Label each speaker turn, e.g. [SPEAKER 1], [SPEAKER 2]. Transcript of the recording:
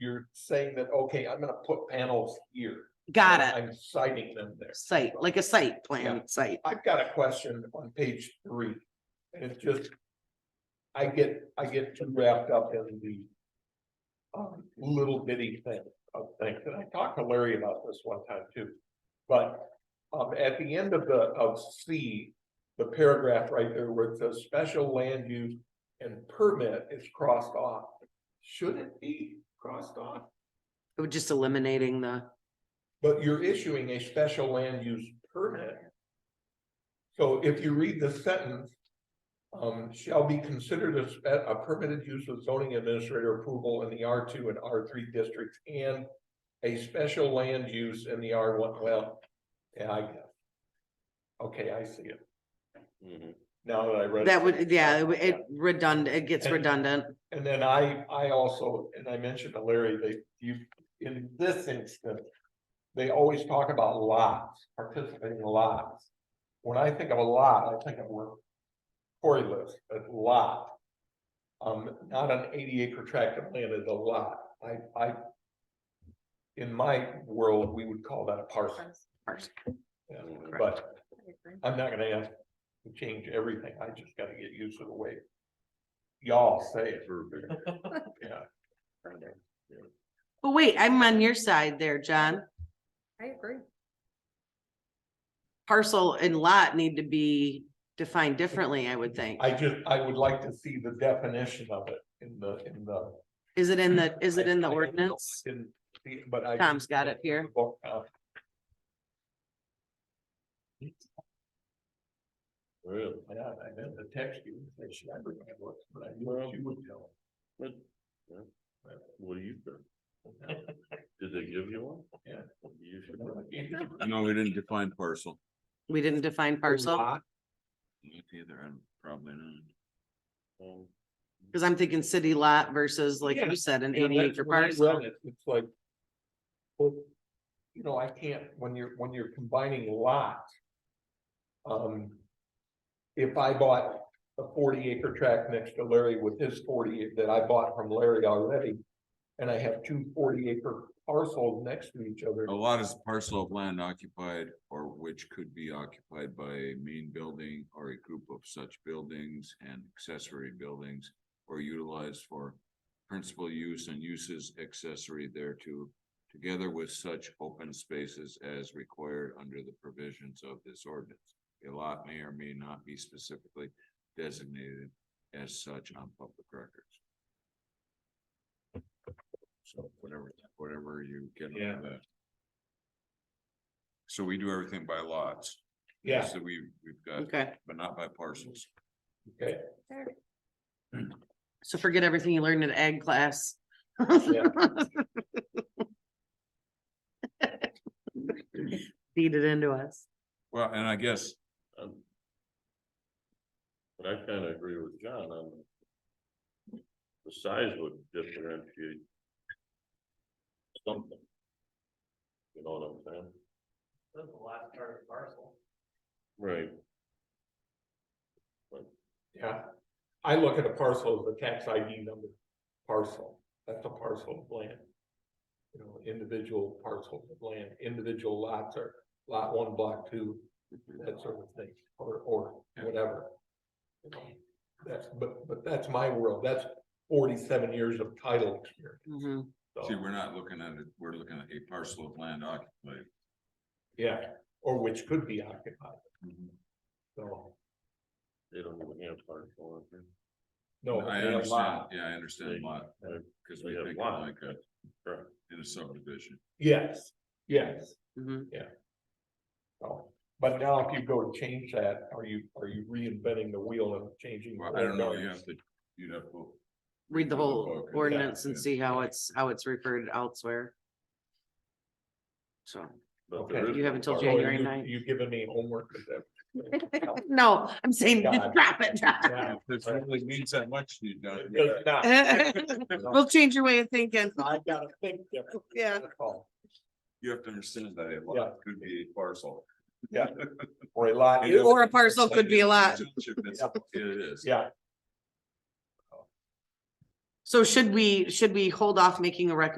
[SPEAKER 1] you're saying that, okay, I'm gonna put panels here.
[SPEAKER 2] Got
[SPEAKER 1] and
[SPEAKER 2] it.
[SPEAKER 1] I'm citing them there.
[SPEAKER 2] Site, like a site plan site.
[SPEAKER 1] I've got a question on page three, and it's just. I get, I get too wrapped up in the. Um, little bitty thing of things, and I talked to Larry about this one time too. But, um, at the end of the, of C, the paragraph right there where it says special land use and permit is crossed off. Should it be crossed off?
[SPEAKER 2] We're just eliminating the,
[SPEAKER 1] But you're issuing a special land use permit. So if you read the sentence. Um, shall be considered a, spe- a permitted use with zoning administrator approval in the R two and R three districts and. A special land use in the R one, well, yeah, I guess. Okay, I see it. Now that I read. it.
[SPEAKER 2] that would, yeah, it would- it redundant, it gets
[SPEAKER 1] And-
[SPEAKER 2] redundant.
[SPEAKER 1] And then I, I also, and I mentioned to Larry, they, you, in this instance. They always talk about lots, participating lots. When I think of a lot, I think of where Cory lives, a lot. Um, not an eighty acre tract of land is a lot, I, I. In my world, we would call that a parcel, yeah, but I'm not gonna ask to change everything, I just gotta get used to the way. Y'all say it, yeah.
[SPEAKER 2] But wait, I'm on your side there, John.
[SPEAKER 3] I agree.
[SPEAKER 2] Parcel and lot need to be defined differently, I would think.
[SPEAKER 1] I just, I would like to see the definition of it in the, in the.
[SPEAKER 2] Is it in the, is it in the
[SPEAKER 1] I- I don't know,
[SPEAKER 2] ordinance?
[SPEAKER 1] I didn't see it, But I.
[SPEAKER 2] Tom's got it here.
[SPEAKER 1] Uh,
[SPEAKER 4] Really?
[SPEAKER 1] yeah, I meant to text you, and say, should I bring my books, but I knew what you would tell.
[SPEAKER 4] What what do you think? Did they give you one?
[SPEAKER 1] Yeah.
[SPEAKER 4] You should.
[SPEAKER 1] me.
[SPEAKER 5] No, we didn't define parcel.
[SPEAKER 2] We didn't define parcel,
[SPEAKER 5] Not Either, I'm probably not.
[SPEAKER 4] um,
[SPEAKER 2] because I'm thinking city lot versus, like
[SPEAKER 1] Yeah.
[SPEAKER 2] you said, an
[SPEAKER 1] Yeah,
[SPEAKER 2] eighty
[SPEAKER 1] that's
[SPEAKER 2] acre
[SPEAKER 1] when I
[SPEAKER 2] parcel.
[SPEAKER 1] read it, It's like. Well, you know, I can't, when you're, when you're combining lots. Um. If I bought a forty acre tract next to Larry with his forty that I bought from Larry already. And I have two 40 acre parcels next to each other.
[SPEAKER 5] A
[SPEAKER 2] Oh.
[SPEAKER 5] lot is parcel of land occupied or which could be occupied by a main building or a group of such buildings and accessory buildings. Or utilized for principal use and uses accessory thereto. Together with such open spaces as required under the provisions of this ordinance. A lot may or may not be specifically designated as such on public records. So whatever, whatever you get out
[SPEAKER 1] Yeah.
[SPEAKER 5] of that. So we do everything by lots.
[SPEAKER 1] Yeah,
[SPEAKER 5] So we, we've got,
[SPEAKER 2] Okay,
[SPEAKER 5] but not by parcels.
[SPEAKER 1] okay,
[SPEAKER 2] so forget everything you learned in ag class.
[SPEAKER 1] yeah,
[SPEAKER 2] Feed it into us.
[SPEAKER 5] Well, and I guess
[SPEAKER 4] um, But I kinda agree with John on. The size would differentiate. Something. You know what I'm saying?
[SPEAKER 6] That's the last part of the parcel.
[SPEAKER 4] Right.
[SPEAKER 1] yeah. I look at a parcel as a tax ID number. Parcel, that's a parcel of land. You know, individual parcels of land, individual lots are lot one, block two, that sort of thing, or, or whatever. You know, That's, but, but that's my world. That's forty-seven years of title experience.
[SPEAKER 2] Mhm.
[SPEAKER 1] so,
[SPEAKER 5] See, we're not looking at it, we're looking at a parcel of land occupied.
[SPEAKER 1] Yeah, or which could be occupied, so,
[SPEAKER 4] They don't even have parcel. I think.
[SPEAKER 1] no.
[SPEAKER 5] I
[SPEAKER 1] they have
[SPEAKER 5] understand,
[SPEAKER 1] lot.
[SPEAKER 5] yeah, I understand a lot,
[SPEAKER 4] Right.
[SPEAKER 5] because we
[SPEAKER 4] They have
[SPEAKER 5] think
[SPEAKER 4] lot.
[SPEAKER 5] of like a,
[SPEAKER 4] Right.
[SPEAKER 5] in a subdivision.
[SPEAKER 1] Yes, yes.
[SPEAKER 2] Mhm.
[SPEAKER 1] So, but now if you go to change that, are you, are you reinventing the wheel and changing?
[SPEAKER 5] Well, I don't know, you have to, you'd have to.
[SPEAKER 2] Read the whole
[SPEAKER 5] Okay, yeah,
[SPEAKER 2] ordinance and
[SPEAKER 5] yeah.
[SPEAKER 2] see how it's, how it's referred elsewhere. So,
[SPEAKER 4] But
[SPEAKER 1] Okay.
[SPEAKER 4] there is
[SPEAKER 2] You
[SPEAKER 4] no
[SPEAKER 2] haven't till
[SPEAKER 4] parcel.
[SPEAKER 1] So
[SPEAKER 2] January
[SPEAKER 1] you-
[SPEAKER 2] 9th.
[SPEAKER 1] You've given me homework. with that.
[SPEAKER 2] no, I'm saying, just
[SPEAKER 1] God.
[SPEAKER 2] drop it.
[SPEAKER 1] Yeah,
[SPEAKER 5] This really means that much, you
[SPEAKER 1] it does not.
[SPEAKER 2] We'll change your way of thinking.
[SPEAKER 1] I've got to think different.
[SPEAKER 2] Yeah.
[SPEAKER 1] That's all.
[SPEAKER 5] You have to understand that a
[SPEAKER 1] Yeah.
[SPEAKER 5] lot could be a parcel.
[SPEAKER 1] Or a lot.
[SPEAKER 5] It is-
[SPEAKER 2] Or a parcel could be a lot.
[SPEAKER 5] It is.
[SPEAKER 1] Yeah,
[SPEAKER 2] So should we, should we hold off making a recommendation